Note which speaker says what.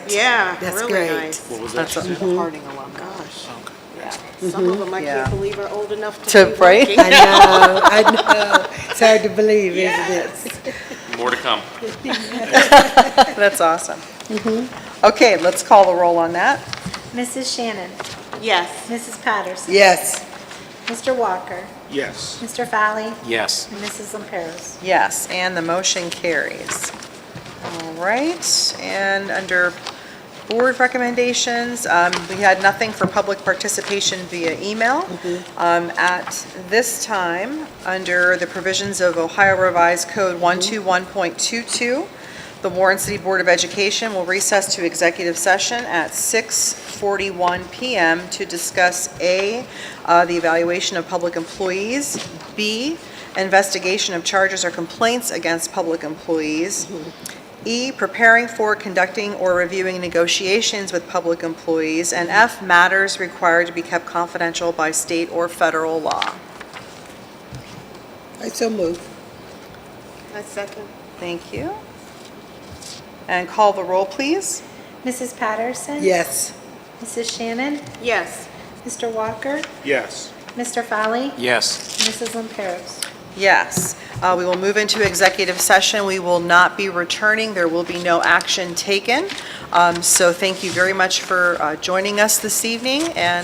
Speaker 1: That's,
Speaker 2: Yeah,
Speaker 1: that's
Speaker 2: really
Speaker 1: great.
Speaker 2: nice.
Speaker 3: What was that?
Speaker 1: That's a-
Speaker 3: Suzanne?
Speaker 4: Harding alum.
Speaker 2: Gosh,
Speaker 3: Okay.
Speaker 2: yeah. Some of them I
Speaker 4: Yeah.
Speaker 2: can't believe are old enough
Speaker 4: To
Speaker 2: to be
Speaker 4: pray?
Speaker 2: working.
Speaker 1: I know, I know. It's hard to believe, isn't it?
Speaker 3: More to come.
Speaker 4: That's awesome.
Speaker 1: Mm-hmm.
Speaker 4: Okay, let's call the roll on that.
Speaker 5: Mrs. Shannon.
Speaker 2: Yes.
Speaker 5: Mrs. Patterson.
Speaker 1: Yes,
Speaker 5: Mr. Walker.
Speaker 3: Yes.
Speaker 5: Mr. Valley.
Speaker 3: Yes.
Speaker 5: And Mrs. Lamperos.
Speaker 4: Yes, and the motion carries. All right, and under board recommendations, um, we had nothing for public participation via email. Um, At this time, under the provisions of Ohio Revised Code 121.22, the Warren City Board of Education will recess to executive session at 6:41 PM to discuss A, uh, the evaluation of public employees, B, investigation of charges or complaints against public employees, E, preparing for, conducting, or reviewing negotiations with public employees, and F, matters required to be kept confidential by state or federal law.
Speaker 1: I so move.
Speaker 2: A second?
Speaker 4: Thank you. And call the roll, please.
Speaker 5: Mrs. Patterson.
Speaker 1: Yes,
Speaker 5: Mrs. Shannon.
Speaker 2: Yes.
Speaker 5: Mr. Walker.
Speaker 3: Yes.
Speaker 5: Mr. Valley.
Speaker 3: Yes.
Speaker 5: and Mrs. Lamperos.
Speaker 4: Yes. Uh, We will move into executive session. We will not be returning. There will be no action taken. Um, So thank you very much for uh, joining us this evening, and